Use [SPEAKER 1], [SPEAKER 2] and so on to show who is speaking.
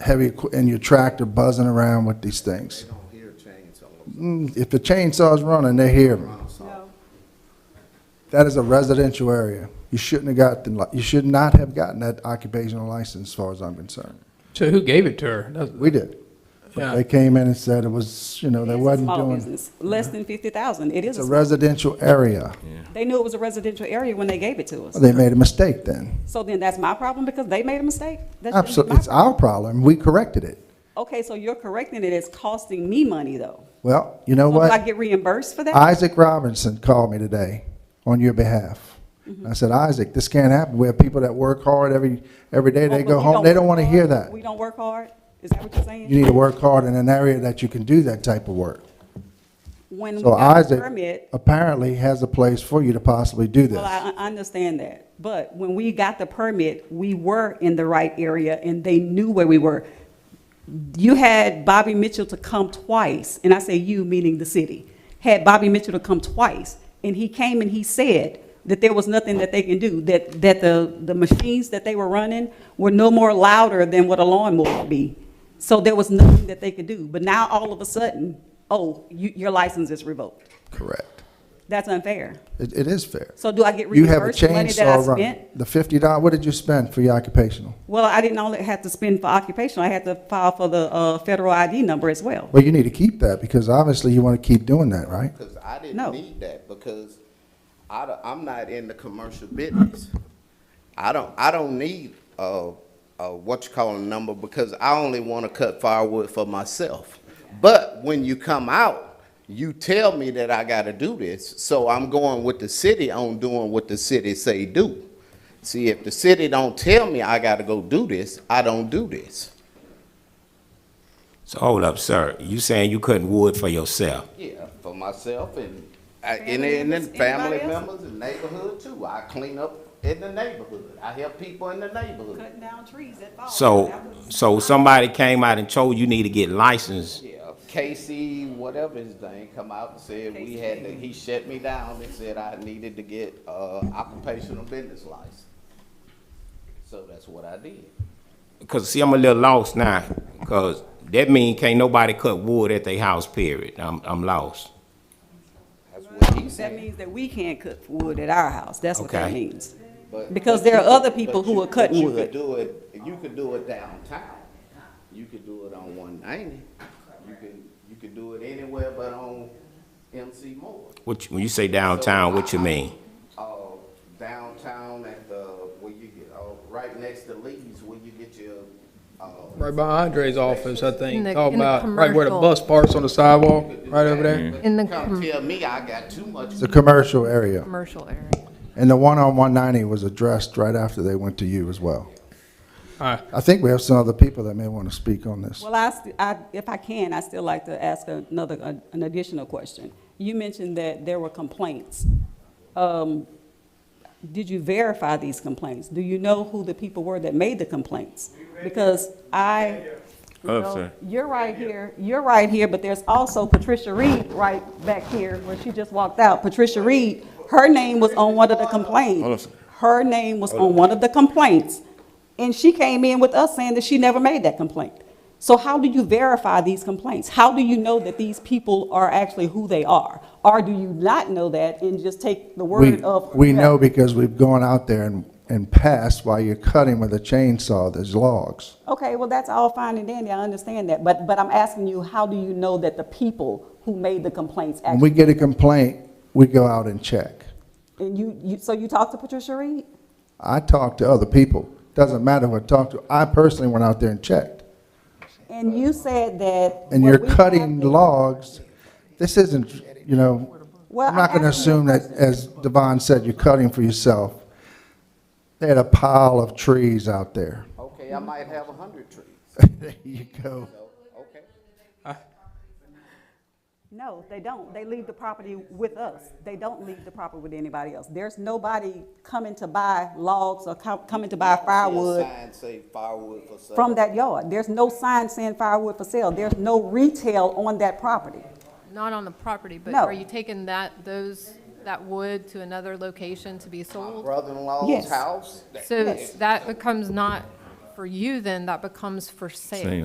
[SPEAKER 1] heavy, equi- and your tractor buzzing around with these things.
[SPEAKER 2] don't hear chainsaws.
[SPEAKER 1] Mm, If the chainsaw's running, they hear them.
[SPEAKER 2] Ronald Salt.
[SPEAKER 3] No,
[SPEAKER 1] That is a residential area. You shouldn't have gotten, li- you should not have gotten that occupational license, as far as I'm concerned.
[SPEAKER 4] So who gave it to her? That's-
[SPEAKER 1] We did. But
[SPEAKER 4] Yeah.
[SPEAKER 1] they came in and said it was, you know, they
[SPEAKER 3] it is a
[SPEAKER 1] wasn't
[SPEAKER 3] small
[SPEAKER 1] doing,
[SPEAKER 3] business, less than fifty thousand, it
[SPEAKER 1] it's
[SPEAKER 3] is a
[SPEAKER 1] a
[SPEAKER 3] small.
[SPEAKER 1] residential area.
[SPEAKER 3] They knew it was a residential area when they gave it to us.
[SPEAKER 1] They made a mistake then.
[SPEAKER 3] So then that's my problem because they made a mistake? That shouldn't be
[SPEAKER 1] Absolutely,
[SPEAKER 3] my
[SPEAKER 1] it's our problem. We corrected it.
[SPEAKER 3] problem. Okay, so you're correcting it, it's costing me money though.
[SPEAKER 1] Well, you know
[SPEAKER 3] So do I
[SPEAKER 1] what?
[SPEAKER 3] get reimbursed for that?
[SPEAKER 1] Isaac Robinson called me today on your behalf.
[SPEAKER 3] Mm-hmm.
[SPEAKER 1] I said, Isaac, this can't happen. We have people that work hard every, every day.
[SPEAKER 3] Oh,
[SPEAKER 1] They
[SPEAKER 3] but
[SPEAKER 1] go
[SPEAKER 3] we
[SPEAKER 1] home, they don't
[SPEAKER 3] work
[SPEAKER 1] want to
[SPEAKER 3] hard?
[SPEAKER 1] hear that.
[SPEAKER 3] We don't work hard? Is that what you're
[SPEAKER 1] You
[SPEAKER 3] saying?
[SPEAKER 1] need to work hard in an area that you can do that type of work.
[SPEAKER 3] When we
[SPEAKER 1] So
[SPEAKER 3] got the
[SPEAKER 1] Isaac
[SPEAKER 3] permit,
[SPEAKER 1] apparently has a place for you to possibly do
[SPEAKER 3] well,
[SPEAKER 1] this.
[SPEAKER 3] I, I understand that. But when we got the permit, we were in the right area and they knew where we were. You had Bobby Mitchell to come twice, and I say you, meaning the city, had Bobby Mitchell to come twice. And he came and he said that there was nothing that they can do, that, that the, the machines that they were running were no more louder than what a lawnmower would be. So there was nothing that they could do. But now all of a sudden, oh, you, your license is revoked.
[SPEAKER 1] Correct.
[SPEAKER 3] That's unfair.
[SPEAKER 1] It, it is fair.
[SPEAKER 3] So do I get
[SPEAKER 1] You have a
[SPEAKER 3] reimbursed the money that I
[SPEAKER 1] chainsaw
[SPEAKER 3] spent?
[SPEAKER 1] running. The fifty dollar, what did you spend for your occupational?
[SPEAKER 3] Well, I didn't only have to spend for occupational, I had to file for the, uh, federal ID number as well.
[SPEAKER 1] Well, you need to keep that because obviously you want to keep doing that, right?
[SPEAKER 2] Because I
[SPEAKER 3] No.
[SPEAKER 2] didn't need that, because I, don't- I'm not in the commercial business. I don't, I don't need a, a what you call a number, because I only want to cut firewood for myself. But when you come out, you tell me that I got to do this, so I'm going with the city on doing what the city say do. See, if the city don't tell me I got to go do this, I don't do this.
[SPEAKER 5] So hold up, sir. You saying you cutting wood for yourself?
[SPEAKER 2] Yeah, for myself and, I- and,
[SPEAKER 3] Family
[SPEAKER 2] and then
[SPEAKER 3] members,
[SPEAKER 2] family
[SPEAKER 3] anybody else?
[SPEAKER 2] members and neighborhood too. I clean up in the neighborhood. I help people in the neighborhood.
[SPEAKER 3] Cutting down trees at fall.
[SPEAKER 5] So,
[SPEAKER 3] That was-
[SPEAKER 5] so somebody came out and told you need to get licensed.
[SPEAKER 2] Yeah, Casey, whatever his name, come out and said we had to, he shut me down and said I needed to get, uh, occupational business license. So that's what I did.
[SPEAKER 5] Cause see, I'm a little lost now. Cause that mean can't nobody cut wood at their house. Period. I'm, I'm lost.
[SPEAKER 2] That's what he
[SPEAKER 3] That
[SPEAKER 2] said.
[SPEAKER 3] means that we can't cut wood at our house, that's what that
[SPEAKER 5] Okay.
[SPEAKER 3] means.
[SPEAKER 2] But-
[SPEAKER 3] because
[SPEAKER 2] but
[SPEAKER 3] there are
[SPEAKER 2] you could-
[SPEAKER 3] other people
[SPEAKER 2] but
[SPEAKER 3] who
[SPEAKER 2] you-
[SPEAKER 3] are cutting
[SPEAKER 2] but you
[SPEAKER 3] wood.
[SPEAKER 2] could do it, you could do it downtown. You could do it on one ninety. You can, you could do it anywhere but on MC Moore.
[SPEAKER 5] What you, when you say downtown, what you mean?
[SPEAKER 2] Uh, downtown at the, where you get, uh, right next to Lee's, where you get your, uh.
[SPEAKER 4] Right by Andre's office, I think.
[SPEAKER 6] In the-
[SPEAKER 4] Talk
[SPEAKER 6] in the
[SPEAKER 4] Oh, about, right where the
[SPEAKER 6] commercial.
[SPEAKER 4] bus parks on the sidewalk, right over there.
[SPEAKER 6] In the mm-hmm.
[SPEAKER 2] Come
[SPEAKER 6] com-
[SPEAKER 2] tell me I got too much.
[SPEAKER 1] It's a commercial area.
[SPEAKER 6] commercial area.
[SPEAKER 1] And the one on one ninety was addressed right after they went to you as well.
[SPEAKER 4] All right.
[SPEAKER 1] I think we have some other people that may want to speak on this.
[SPEAKER 3] Well, I, st- I, if I can, I still like to ask another, an additional question. You mentioned that there were complaints. Um, did you verify these complaints? Do you know who the people were that made the complaints? Because I.
[SPEAKER 5] Up,
[SPEAKER 3] No,
[SPEAKER 5] sir.
[SPEAKER 3] You're right here, you're right here, but there's also Patricia Reed right back here where she just walked out. Patricia Reed, her name was on one of the
[SPEAKER 5] Hold on,
[SPEAKER 3] complaints.
[SPEAKER 5] sir.
[SPEAKER 3] Her name was on one of the complaints. And she came in with us saying that she never made that complaint. So how do you verify these complaints? How do you know that these people are actually who they are? Or do you not know that and just take the
[SPEAKER 1] We,
[SPEAKER 3] word of?
[SPEAKER 1] we know because we've gone out there and, and passed while you're cutting with a chainsaw, there's logs.
[SPEAKER 3] Okay, well, that's all fine and dandy, I understand that, but, but I'm asking you, how do you know that the people who made the complaints
[SPEAKER 1] When we
[SPEAKER 3] actually?
[SPEAKER 1] get a complaint, we go out and check.
[SPEAKER 3] And you, you, so you talked to Patricia Reed?
[SPEAKER 1] I talk to other people. Doesn't matter who I talk to. I personally went out there and checked.
[SPEAKER 3] And you said that.
[SPEAKER 1] And
[SPEAKER 3] what
[SPEAKER 1] you're
[SPEAKER 3] we have
[SPEAKER 1] cutting
[SPEAKER 3] is-
[SPEAKER 1] logs. This isn't, you know,
[SPEAKER 3] Well,
[SPEAKER 1] I'm not
[SPEAKER 3] I'm
[SPEAKER 1] gonna
[SPEAKER 3] asking you
[SPEAKER 1] assume
[SPEAKER 3] a
[SPEAKER 1] that, as Devon said, you're cutting for yourself. They had a pile of trees out there.
[SPEAKER 2] Okay, I might have a hundred trees.
[SPEAKER 1] There you go.
[SPEAKER 2] Okay.
[SPEAKER 3] No, they don't, they leave the property with us, they don't leave the property with anybody else. There's nobody coming to buy logs or co- coming to buy firewood
[SPEAKER 2] Sign say firewood for sale.
[SPEAKER 3] from that yard. There's no sign saying firewood for sale, there's no retail on that property.
[SPEAKER 6] Not on the property, but
[SPEAKER 3] No.
[SPEAKER 6] are you taking that, those, that wood to another location to be
[SPEAKER 2] My
[SPEAKER 6] sold?
[SPEAKER 2] brother-in-law's
[SPEAKER 3] Yes.
[SPEAKER 2] house. that-
[SPEAKER 6] So that becomes not for you then, that becomes for sale.